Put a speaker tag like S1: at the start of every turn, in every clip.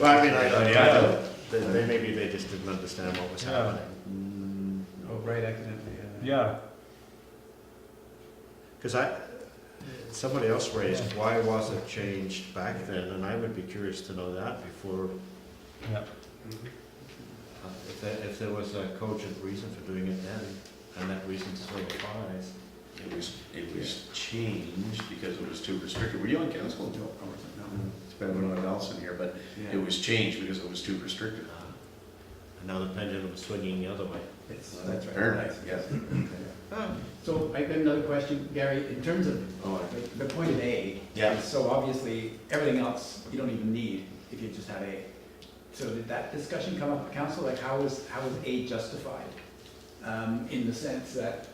S1: Well, I mean, I,
S2: Yeah,
S1: I
S2: yeah.
S1: don't, they- they, maybe they just didn't understand what was
S3: Yeah.
S1: happening.
S2: Oh, right, accidentally, yeah.
S3: Yeah,
S1: Because I, somebody else raised, why was it changed back then? And I would be curious to know that before,
S3: yeah.
S1: uh, if there, if there was a cogent reason for doing it then, and that reason still applies.
S4: It was, it was changed because it was too restrictive. Were you on council until, or, no, it's been when I was Allison here, but it was changed because it was too restrictive.
S1: Uh, And now the pendulum is swinging the other way.
S2: It's-
S4: That's very nice, yes.
S2: Hmm. So I've got another question, Gary, in terms of
S4: Oh, I-
S2: the- the point of A.
S4: Yeah.
S2: So obviously, everything else you don't even need if you just have A. So did that discussion come up at council, like how is, how is A justified? Um, in the sense that,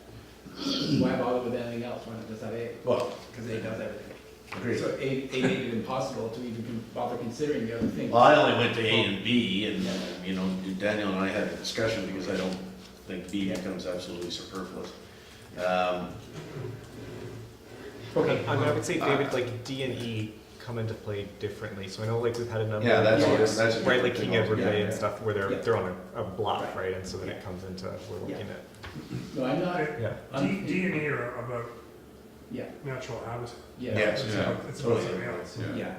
S2: why bother with anything else when it just have A?
S4: Well,
S2: Because A does everything.
S4: agreed.
S2: So A, A made it impossible to even con- bother considering the other things.
S4: Well, I only went to A and B, and, uh, you know, Daniel and I had a discussion, because I don't think B becomes absolutely superfluous. Um,
S2: Okay.
S5: I mean, I would say, David, like D and E come into play differently. So I know, like, we've had a number.
S4: Yeah, that's,
S2: Yeah.
S4: that's. a
S5: Right, like
S4: different
S5: King
S4: thing
S5: Edward Bay
S4: altogether.
S5: and stuff, where they're,
S2: Yeah.
S5: they're on a, a block,
S2: Right.
S5: right, and so then
S2: Yeah.
S5: it comes into, we're
S2: Yeah.
S5: looking
S2: No, I'm not,
S5: at, yeah.
S6: Uh, D, D and E are about
S2: yeah,
S6: natural habitat.
S2: yeah,
S4: Yes,
S6: It's
S4: yeah,
S6: about- It's about
S4: totally.
S6: something else.
S4: Yeah.
S2: yeah.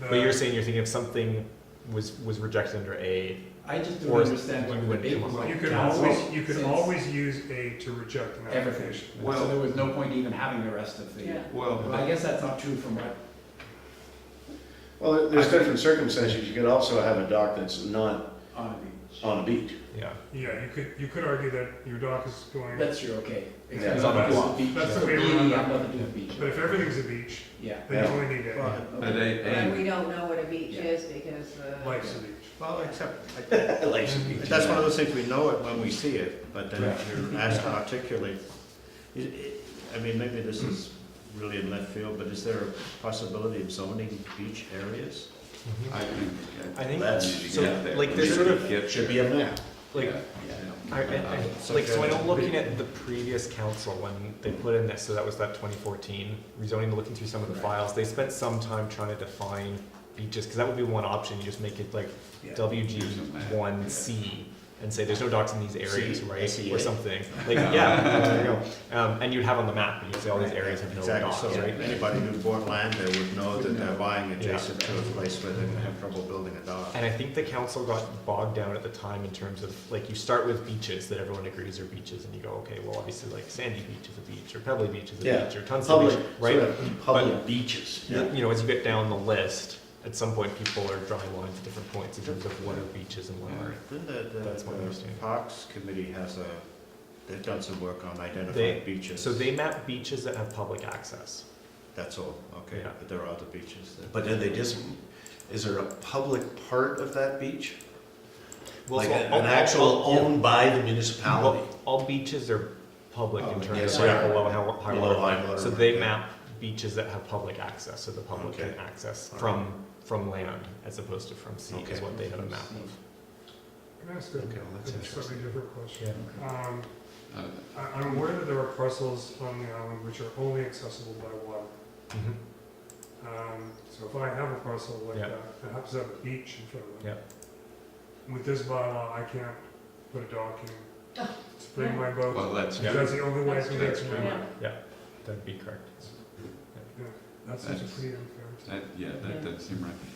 S6: The-
S5: But you're saying you're thinking if something was, was rejected under A,
S2: I just don't
S5: Or
S2: understand what
S5: you
S2: the
S5: would
S2: debate
S5: come
S2: was
S5: up
S2: like.
S6: You could
S2: Council,
S6: always, you could
S2: since
S6: always use A to reject an
S2: Everything.
S6: application.
S2: So there was no point even having the rest of the, well, I guess that's not true from what,
S4: Well, there's different circumstances. You could also have a dock that's not
S2: on
S1: Oh.
S2: the beach.
S4: on a beach.
S5: yeah.
S6: Yeah, you could, you could argue that your dock is going, but
S2: That's true, okay.
S4: Yeah.
S2: Except
S5: It's on the
S2: because of
S5: block.
S2: the beach.
S6: That's the
S2: So
S6: way we
S2: really,
S6: run
S2: I've
S6: that.
S2: nothing to do with the beach.
S6: if everything's a beach,
S2: Yeah.
S6: then you only need
S1: Well,
S6: A.
S2: okay.
S7: But we don't know what a beach
S2: Yeah.
S7: is because uh, the.
S6: Life's a beach.
S1: Well, except,
S4: Life's a beach.
S1: That's one of those things, we know it when we see it, but then if you're asked to
S5: Yeah.
S1: articulate, i- i- I mean, maybe this is really in left field, but is there a possibility of zoning beach areas? Mm-hmm.
S5: Mhm.
S4: I think,
S5: I think,
S1: That's,
S5: so, like, there's sort of,
S1: it should be a map.
S5: like, I, I, I,
S1: So
S5: like, so I know
S1: good.
S5: looking at the previous council when they put in this, so that was that twenty fourteen rezoning, looking through some of the
S2: Right.
S5: files, they spent some time trying to define beaches, cause that would be one option, you just make it like
S2: Yeah.
S5: WG one C and say there's no docks in these areas,
S1: C,
S5: right?
S1: SEA.
S5: Or something, like, yeah, there you go, um, and you'd have on the map, and you'd say all these areas have no
S1: Exactly,
S5: docks,
S1: so
S5: right?
S1: anybody who bought land there would know that they're buying adjacent to a place where they're gonna have trouble building a dock.
S5: And I think the council got bogged down at the time in terms of, like, you start with beaches that everyone agrees are beaches, and you go, okay, well, obviously, like, Sandy Beach is a beach, or Pebbly Beach is a
S4: Yeah.
S5: beach, or Tunstall
S4: Public,
S5: Beach, right?
S4: public beaches.
S5: You- You know, as you get down the list, at some point, people are drawing lines at different points in terms of what are beaches and what aren't.
S1: Then the, the
S5: That's my
S1: the
S5: understanding.
S1: Parks Committee has a, they've done some work on
S5: They-
S1: identifying beaches.
S5: So they map beaches that have public access.
S1: That's all, okay,
S5: Yeah.
S1: but there are other beaches there.
S4: But then they just, is there a public part of that beach?
S5: Well,
S4: Like
S5: so
S4: an
S5: all-
S4: an
S5: all-
S4: actual
S5: all-
S4: owned by the municipality?
S5: Well, all beaches are public in
S4: Public,
S5: terms
S4: yes,
S5: of like
S4: yeah.
S5: below high- high
S4: Below
S5: water.
S4: high
S5: line.
S4: water
S5: So
S4: mark,
S5: they
S4: yeah.
S5: map beaches that have public access, so the public can
S1: Okay.
S5: access
S1: Alright.
S5: from, from land as opposed to from sea is
S4: Okay.
S5: what they have a map
S6: Can I ask a
S4: Okay, well, that's
S6: a slightly different
S5: of.
S6: question? Um, I, I'm aware that there are parcels on the island which are only accessible by water.
S5: Mhm.
S6: Um, so if I have a parcel like
S5: Yeah.
S6: that, that happens to have a beach in front of it.
S5: Yeah.
S6: With this bylaw, I can't put a dock in,
S7: Oh,
S6: to bring my boat,
S4: that's.
S5: Yeah.
S6: that's the only way I can get
S7: That's
S6: to
S7: true.
S6: my,
S5: That'd be correct.
S6: that's such a pretty unfair.
S7: Yeah, that, that's.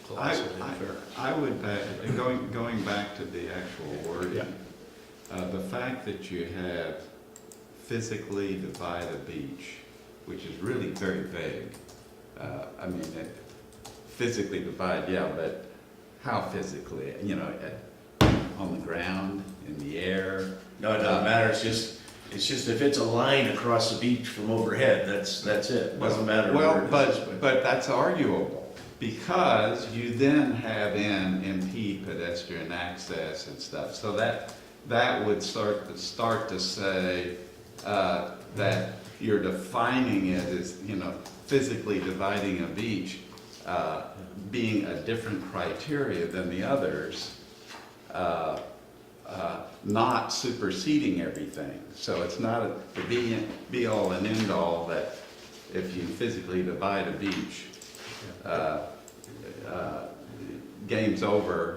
S1: Colossally unfair.
S8: I would, uh, going, going back to the actual
S5: Yeah.
S8: wording, uh, the fact that you have physically divide a beach, which is really very vague. Uh, I mean, it- physically divide, yeah, but how physically? You know, uh, on the ground, in the air?
S4: No, it doesn't matter, it's just, it's just if it's a line across the beach from overhead, that's, that's it, doesn't matter where
S8: Well,
S4: it is.
S8: but, but that's arguable, because you then have in impede pedestrian access and stuff, so that, that would start to, start to say, uh, that you're defining it as, you know, physically dividing a beach, uh, being a different criteria than the others, uh, uh, not superseding everything. So it's not a- the be, be all and end all that if you physically divide a beach, uh, uh, game's over,